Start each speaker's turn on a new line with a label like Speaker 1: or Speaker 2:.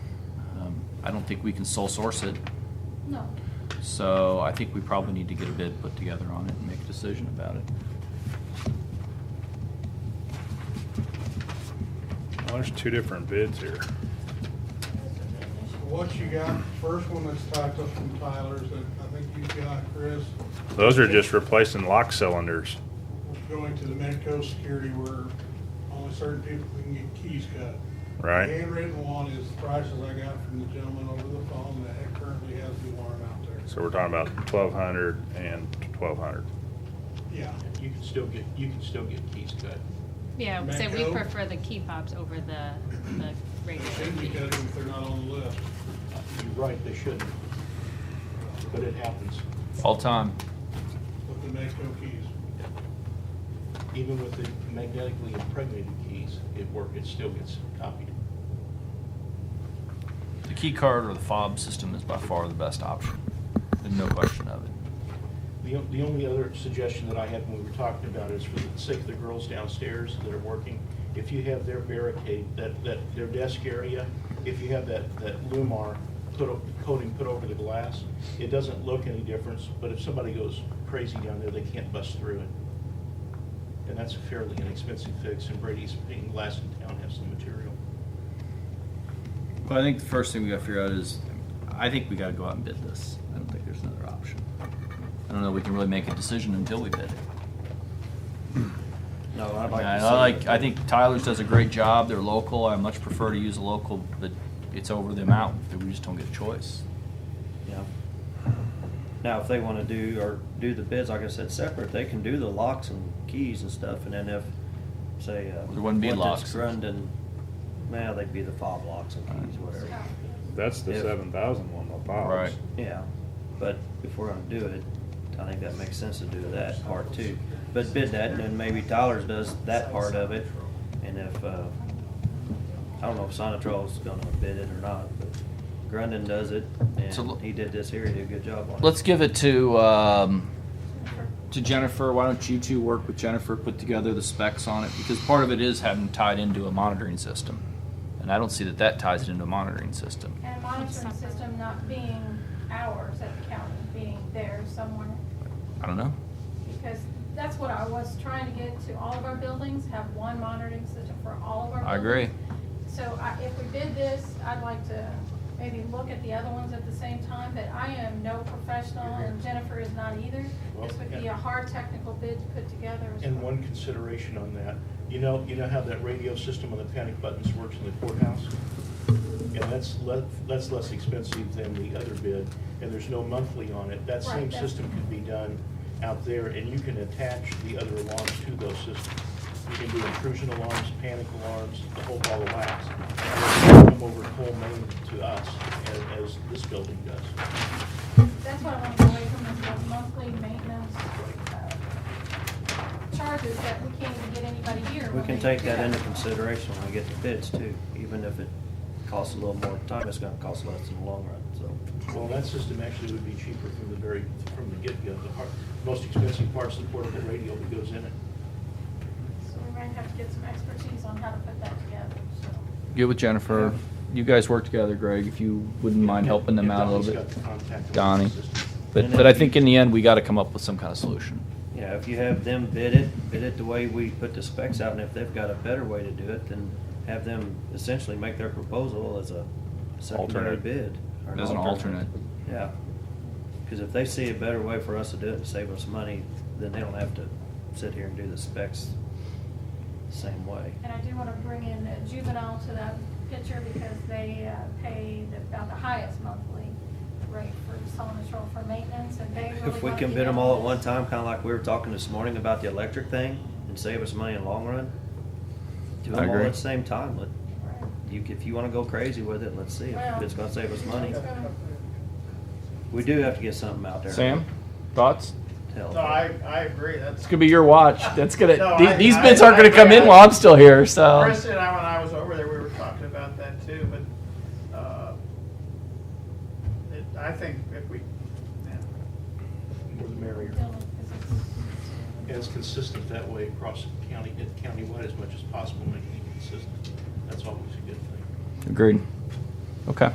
Speaker 1: Um, I don't think we can sole source it.
Speaker 2: No.
Speaker 1: So I think we probably need to get a bid put together on it and make a decision about it.
Speaker 3: Well, there's two different bids here.
Speaker 4: What you got, first one that's typed up from Tyler's, that I think you got, Chris,
Speaker 3: Those are just replacing lock cylinders.
Speaker 4: was going to the Medco security where only certain people can get keys cut.
Speaker 3: Right.
Speaker 4: The Handwritten one is the prices I got from the gentleman over the phone that currently has the alarm out there.
Speaker 3: So we're talking about twelve hundred and twelve hundred.
Speaker 4: Yeah,
Speaker 5: You can still get, you can still get keys cut.
Speaker 2: Yeah, so we
Speaker 4: Mango?
Speaker 2: prefer the key fobs over the, the
Speaker 4: they
Speaker 2: regular
Speaker 4: should be
Speaker 2: key.
Speaker 4: cut if they're not on the list.
Speaker 5: Uh, You're right, they shouldn't, but it happens,
Speaker 1: All time.
Speaker 4: With the Medco keys.
Speaker 5: even with the magnetically impregnated keys, it work, it still gets copied.
Speaker 1: The key card or the fob system is by far the best option. There's no question of it.
Speaker 5: The, o- the only other suggestion that I had when we were talking about is for the sake of the girls downstairs that are working, if you have their barricade, that, that, their desk area, if you have that, that Lumar put, o- coating put over the glass, it doesn't look any difference, but if somebody goes crazy down there, they can't bust through it. And that's a fairly inexpensive fix, and Brady's painting glass in town has the material.
Speaker 1: But I think the first thing we gotta figure out is, I think we gotta go out and bid this. I don't think there's another option. I don't know, we can really make a decision until we bid it.
Speaker 6: No,
Speaker 1: I
Speaker 6: I'd
Speaker 1: mean,
Speaker 6: like
Speaker 1: I
Speaker 6: to
Speaker 1: I
Speaker 6: see
Speaker 1: like,
Speaker 6: it.
Speaker 1: I think Tyler's does a great job, they're local, I much prefer to use a local, but it's over the amount, that we just don't get a choice.
Speaker 6: Yeah. Now, if they wanna do, or do the bids, like I said, separate, they can do the locks and keys and stuff, and then if, say, uh.
Speaker 1: There wouldn't be
Speaker 6: one
Speaker 1: locks.
Speaker 6: that's Grundon, now they'd be the fob locks and keys, whatever.
Speaker 3: That's the
Speaker 6: Yeah.
Speaker 3: seven thousand one, the files.
Speaker 1: Right.
Speaker 6: Yeah, but if we're gonna do it, I think that makes sense to do that part too. But bid that, and then maybe Tyler's does that part of it, and if, uh, I don't know if Sonatrol's gonna bid it or not, but Grundon does it,
Speaker 1: So l-
Speaker 6: and he did this here, he did a good job on it.
Speaker 1: Let's give it to, um, to Jennifer. Why don't you two work with Jennifer, put together the specs on it? Because part of it is having tied into a monitoring system. And I don't see that that ties it into a monitoring system.
Speaker 7: And a monitoring system not being ours at the county, being there somewhere,
Speaker 1: I don't know.
Speaker 7: because that's what I was trying to get to all of our buildings, have one monitoring system for all of our
Speaker 1: I agree.
Speaker 7: buildings. So I, if we did this, I'd like to maybe look at the other ones at the same time, but I am no professional and Jennifer is not either. This would be a hard technical bid to put together. as
Speaker 5: And
Speaker 7: well.
Speaker 5: one consideration on that, you know, you know how that radio system on the panic buttons works in the courthouse? And that's le, that's less expensive than the other bid, and there's no monthly on it. That
Speaker 7: Right,
Speaker 5: same
Speaker 7: that's-
Speaker 5: system could be done out there, and you can attach the other alarms to those systems. You can do intrusion alarms, panic alarms, the whole ball of wax. And they Come over Cole Main to us, as, as this building does.
Speaker 7: That's what I want to get away from is the monthly maintenance uh, charges that we can't even get anybody here.
Speaker 6: We
Speaker 7: when
Speaker 6: can
Speaker 7: they
Speaker 6: take
Speaker 7: do
Speaker 6: that into consideration when we get the bids too, even if it costs a little more time, it's gonna cost less in the long run, so.
Speaker 5: Well, that system actually would be cheaper from the very, from the get-go. The har most expensive part's the portable radio that goes in it.
Speaker 7: So we might have to get some expertise on how to put that together, so.
Speaker 1: Get with Jennifer. You guys work together, Greg, if you wouldn't mind helping them
Speaker 5: Yeah,
Speaker 1: out a
Speaker 5: Donnie's
Speaker 1: little bit.
Speaker 5: got the contact with
Speaker 1: Donnie.
Speaker 5: the system.
Speaker 1: But, but I think in the end, we gotta come up with some kind of solution.
Speaker 6: Yeah, if you have them bid it, bid it the way we put the specs out, and if they've got a better way to do it, then have them essentially make their proposal as a secondary
Speaker 3: Alternate.
Speaker 6: bid. or
Speaker 1: As an alternate.
Speaker 6: Yeah, because if they see a better way for us to do it and save us money, then they don't have to sit here and do the specs the same way.
Speaker 7: And I do want to bring in a juvenile to that picture because they uh, pay the- about the highest monthly rate for Solomon for maintenance and they really
Speaker 6: If we
Speaker 7: wanna
Speaker 6: can
Speaker 7: be
Speaker 6: bid them
Speaker 7: down
Speaker 6: all at
Speaker 7: this.
Speaker 6: one time, kinda like we were talking this morning about the electric thing, and save us money in the long run,
Speaker 1: I
Speaker 6: do them all
Speaker 1: agree.
Speaker 6: at the same time. Let,
Speaker 7: Right.
Speaker 6: you, if you wanna go crazy with it, let's see if
Speaker 7: Well,
Speaker 6: it's gonna save us money.
Speaker 7: It's gonna-
Speaker 6: We do have to get something out there.
Speaker 1: Sam, thoughts?
Speaker 6: Hell.
Speaker 8: No, I, I agree, that's.
Speaker 1: It's gonna be your watch. That's
Speaker 8: No,
Speaker 1: gonna, the-
Speaker 8: I-
Speaker 1: these
Speaker 8: I-
Speaker 1: bids aren't gonna
Speaker 8: I-
Speaker 1: come in
Speaker 8: I-
Speaker 1: while I'm still here, so.
Speaker 8: Chris and I, when I was over there, we were talking about that too, but, uh, it, I think if we, yeah,
Speaker 5: More the merrier.
Speaker 7: Dylan, 'cause it's-
Speaker 5: And it's consistent that way across the county, countywide as much as possible, making it consistent. That's always a good thing.
Speaker 1: Agreed. Okay.